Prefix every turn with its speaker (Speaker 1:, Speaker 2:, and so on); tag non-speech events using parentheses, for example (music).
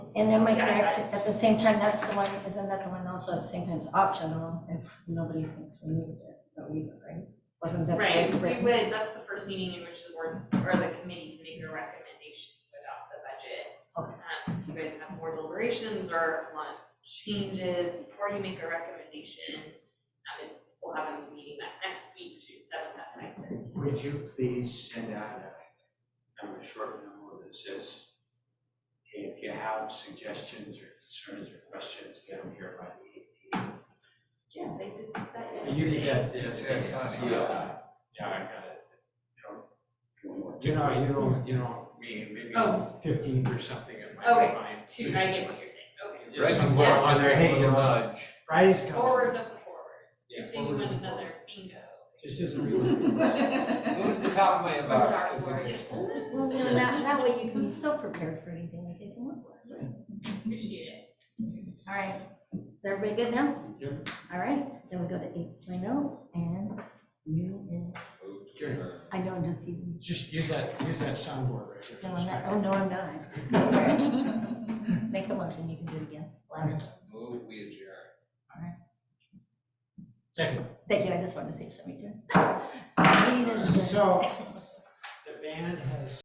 Speaker 1: And then my
Speaker 2: Yeah,
Speaker 1: correct, at the same time, that's the one, is another one also at the same time is optional if nobody thinks we need it, but we, right? Wasn't that the way
Speaker 2: Right,
Speaker 1: it's
Speaker 2: we
Speaker 1: written?
Speaker 2: would, that's the first meeting in which the board, or the committee can make a recommendation to adopt the budget. Um, if you guys have more deliberations or want changes before you make a recommendation, um, and we'll have a meeting that next week to set up that night.
Speaker 3: Would you please send out a, a short memo that says, "Hey, if you have suggestions or concerns or questions, get them here by the eighteenth.
Speaker 2: Yes, I did that
Speaker 3: You did
Speaker 2: yesterday.
Speaker 3: that, yes, yes, I saw that. Yeah, I got it. You don't- You know, you don't, you don't mean maybe
Speaker 2: Oh.
Speaker 3: fifteen or something, it might
Speaker 2: Okay.
Speaker 3: be fine.
Speaker 2: Two, I get what you're saying, okay.
Speaker 4: Right
Speaker 3: Some
Speaker 4: before,
Speaker 3: block
Speaker 4: just
Speaker 3: on there,
Speaker 4: a
Speaker 3: hey,
Speaker 4: little
Speaker 3: you know,
Speaker 4: nudge.
Speaker 3: Fries coming.
Speaker 2: Forward of the forward, you're
Speaker 4: Yeah,
Speaker 2: seeing
Speaker 3: forward
Speaker 2: one
Speaker 3: of the
Speaker 2: another, bingo.
Speaker 3: Just isn't really.
Speaker 2: (laughs)
Speaker 4: Move to the top of my inbox,
Speaker 2: Dark
Speaker 4: 'cause it
Speaker 2: word.
Speaker 4: gets full.
Speaker 1: Well, you know, that, that way you can be so prepared for anything that they can work with.
Speaker 2: Appreciate it.
Speaker 1: All right, is everybody good now?
Speaker 3: Yep.
Speaker 1: All right, then we go to eight and you is, I know I'm just teasing.
Speaker 3: Just use that, use that soundboard right there.
Speaker 1: No,
Speaker 3: Just
Speaker 1: I'm not,
Speaker 3: kinda-
Speaker 1: oh, no, I'm
Speaker 2: (laughs)
Speaker 1: not. Make a motion, you can do it again. Louder.
Speaker 4: Move, we adjourn.
Speaker 3: Second.
Speaker 1: (laughs) Thank you, I just wanted to say something to. Meeting is adjourned.
Speaker 3: So, the band has